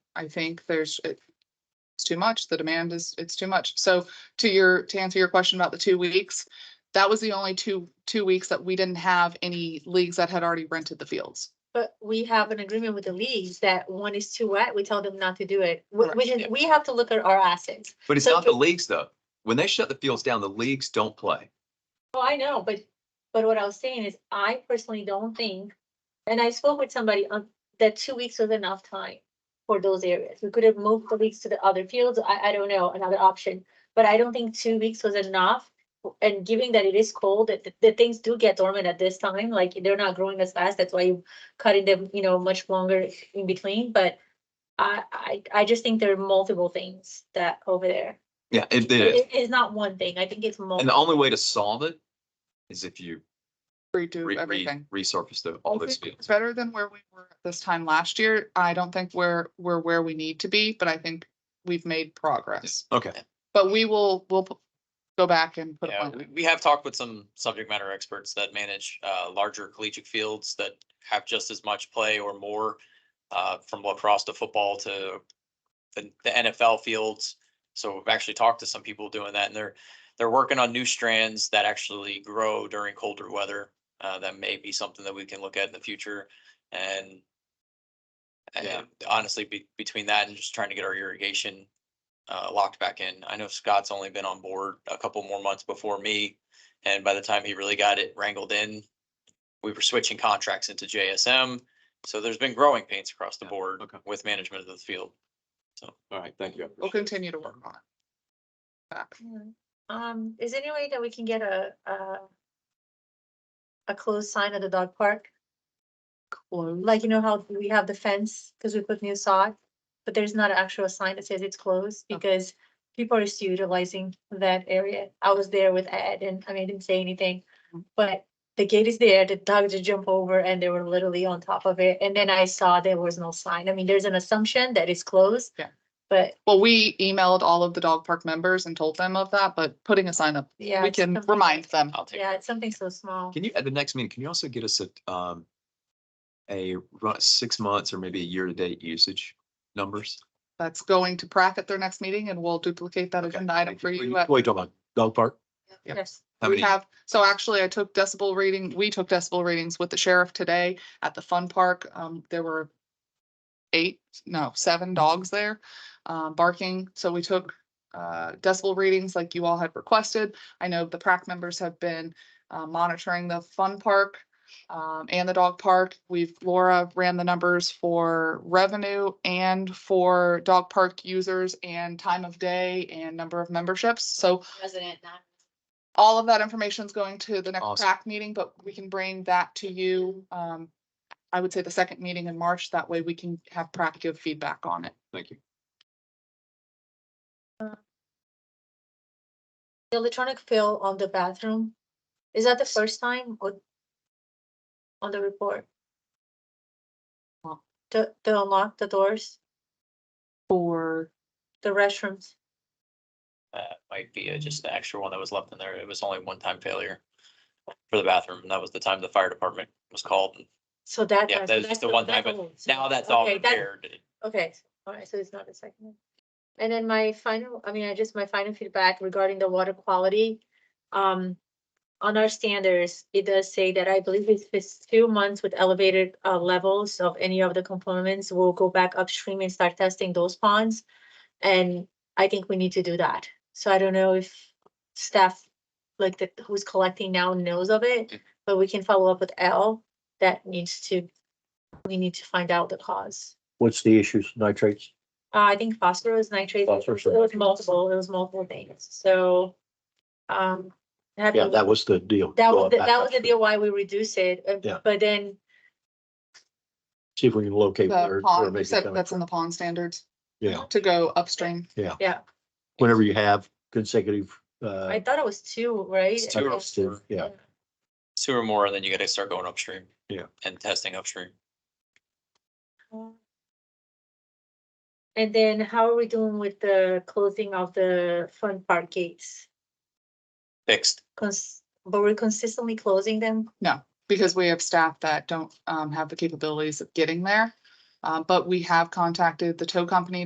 I think there's, it- it's too much. The demand is, it's too much. So to your, to answer your question about the two weeks, that was the only two, two weeks that we didn't have any leagues that had already rented the fields. But we have an agreement with the leagues that one is too wet, we tell them not to do it. We, Correct, we, just- we have to look at our assets. But it's So not the to- leagues though. When they shut the fields down, the leagues don't play. Oh, I know, but, but what I was saying is I personally don't think, and I spoke with somebody on, that two weeks was enough time for those areas. We could have moved the leagues to the other fields. I, I don't know, another option. But I don't think two weeks was enough. And given that it is cold, that, that- that things do get dormant at this time, like they're not growing as fast. That's why you cutting them, you know, much longer in between, but I, I, I just think there are multiple things that over there. Yeah, it is. It's not one thing. I think it's And the multiple. only way to solve it is if you Redo re- re- everything. resurface the, I all those think fields. It's better than where we were this time last year. I don't think we're, we're where we need to be, but I think we've made progress. Okay, But we will, we'll p- go back and put a Yeah, plan. we- we have talked with some subject matter experts that manage uh larger collegiate fields that have just as much play or more. Uh, from lacrosse to football to the the NFL fields. So we've actually talked to some people doing that and they're, they're working on new strands that actually grow during colder weather. Uh, that may be something that we can look at in the future and. Yeah. And honestly, be, between that and just trying to get our irrigation uh, locked back in. I know Scott's only been on board a couple more months before me. And by the time he really got it wrangled in, we were switching contracts into JSM. So there's been growing pains across the Yeah, board okay. with management of the field. all right, thank you. I We'll appreciate it. continue to work on it. Back. Mm. Um, is there any way that we can get a, a a closed sign at the dog park? Like, you know how we have the fence, because we put new sod, but there's not an actual sign that says it's closed Okay. because people are still utilizing that area. I was there with Ed and, I mean, I didn't say anything. Mhm. But the gate is there, the dogs would jump over and they were literally on top of it. And then I saw there was no sign. I mean, there's an assumption that it's closed. Yeah. But Well, we emailed all of the dog park members and told them of that, but putting a sign up, yeah. we it's can something- remind them. I'll take. Yeah, it's something so small. Can you, at the next meeting, can you also get us a, um, a run, six months or maybe a year-to-date usage numbers? That's going to Prac at their next meeting and we'll duplicate that Okay, agenda item thank for you. What at- are you talking about? Dog park? Yeah. Yes. How We many? have, so actually I took decibel reading, we took decibel readings with the sheriff today at the fun park. Um, there were eight, no, seven dogs there, um, barking. So we took, uh, decibel readings like you all had requested. I know the PrAC members have been, uh, monitoring the fun park, um, and the dog park. We've, Laura ran the numbers for revenue and for dog park users and time of day and number of memberships. So President, not. all of that information is going to the next Awesome. PrAC meeting, but we can bring that to you. Um, I would say the second meeting in March, that way we can have PrAC give feedback on it. Thank you. The electronic fill on the bathroom, is that the first time or? On the report? To, to unlock the doors, For, the restrooms, That might be uh, just the extra one that was left in there. It was only one time failure for the bathroom. and That was the time the fire department was called. and so that. Yeah, has- that is that's the one that's time, old. Now that's all Okay, that- repaired. Okay, alright, so it's not a second. one. And then my final, I mean, I just, my final feedback regarding the water quality. Um, on our standards, it does say that I believe if it's two months with elevated uh levels of any of the components, we'll go back upstream and start testing those ponds. And I think we need to do that. So I don't know if staff, like the, who's collecting now knows of it, but we can follow up with L that needs to, we need to find out the cause. What's the issues? Nitrates? Uh, I think phosphorus nitrate, it was Phosphorus it was nitrate. multiple, it was multiple things, so. Um. I have to Yeah, look- that was the deal. That Go was, the- back that up was the to- deal why we reduced it, uh, Yeah. but then See if we can locate where. the where pond, maybe you said coming that's in from. the pond standards Yeah, to go upstream. whenever you have consecutive, I uh, thought it was two, right? It's two or Okay. four. yeah, Two or more, and then you gotta start going upstream. Yeah. And testing upstream. And then how are we doing with the closing of the fun park gates? Fixed. Cons, but we're consistently closing them? Because we have staff that don't, um, have the capabilities of getting there. Um, but we have contacted the tow company